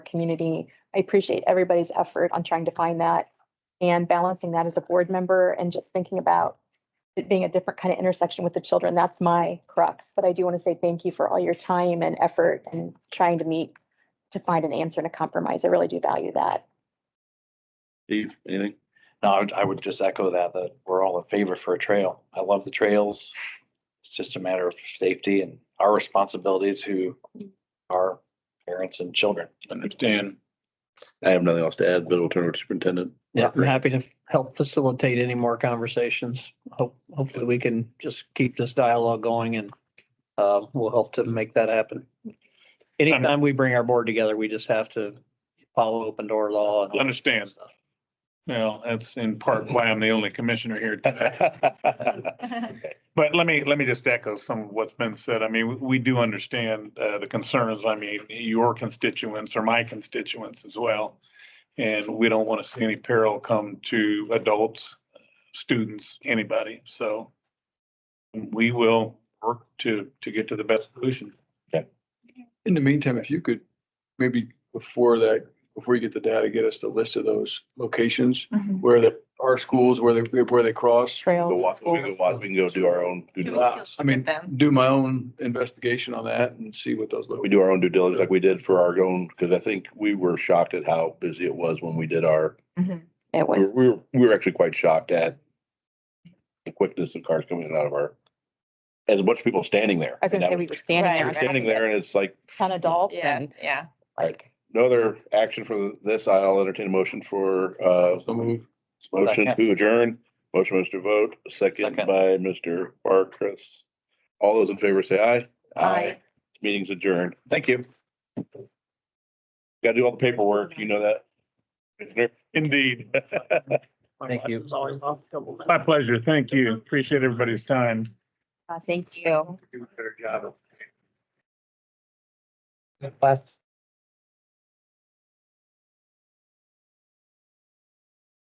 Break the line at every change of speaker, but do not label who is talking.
community. I appreciate everybody's effort on trying to find that and balancing that as a board member and just thinking about it being a different kind of intersection with the children. That's my crux. But I do want to say thank you for all your time and effort and trying to meet to find an answer and a compromise. I really do value that.
Steve, anything?
No, I would, I would just echo that, that we're all in favor for a trail. I love the trails. It's just a matter of safety and our responsibility to our parents and children.
Understand. I have nothing else to add, but we'll turn over to superintendent.
Yeah, I'm happy to help facilitate any more conversations. Hope, hopefully we can just keep this dialogue going and uh, we'll help to make that happen. Anytime we bring our board together, we just have to follow open door law. and all that
Understand.
stuff.
Well, that's in part why I'm the only commissioner here today. But let me, let me just echo some of what's been said. I mean, we- we do understand uh, the concerns. I mean, your constituents are my constituents as well. And we don't want to see any peril come to adults, students, anybody. So we will work to, to get to the best solution.
In the meantime, if you could, maybe before that, before you get the data, get us the list of those locations where the, our schools, where they, where they cross.
Go
Trail.
walk, we can go walk, we can go do our own, due diligence.
Uh, I mean, do my own investigation on that and see what those.
we do our own due diligence like we did for our own, because I think we were shocked at how busy it was when we did our,
It
we
was,
were, we were actually quite shocked at the quickness of cars coming in and out of our, as a bunch of people standing there.
I was going to say we were standing there.
We're Standing there and it's like,
Ton adults
Yeah,
and
yeah.
like,
no other action for this. I'll entertain a motion for, uh,
So move.
Motion
Second.
to adjourn, motion by Mr. Vogt, second
Second.
by Mr. Barkris. All those in favor say aye.
Aye.
Meeting's adjourned. Thank you. Got to do all the paperwork, you know that. Commissioner?
Indeed.
Thank you.
My pleasure. Thank you. Appreciate everybody's time.
uh, thank you.
Do a better job.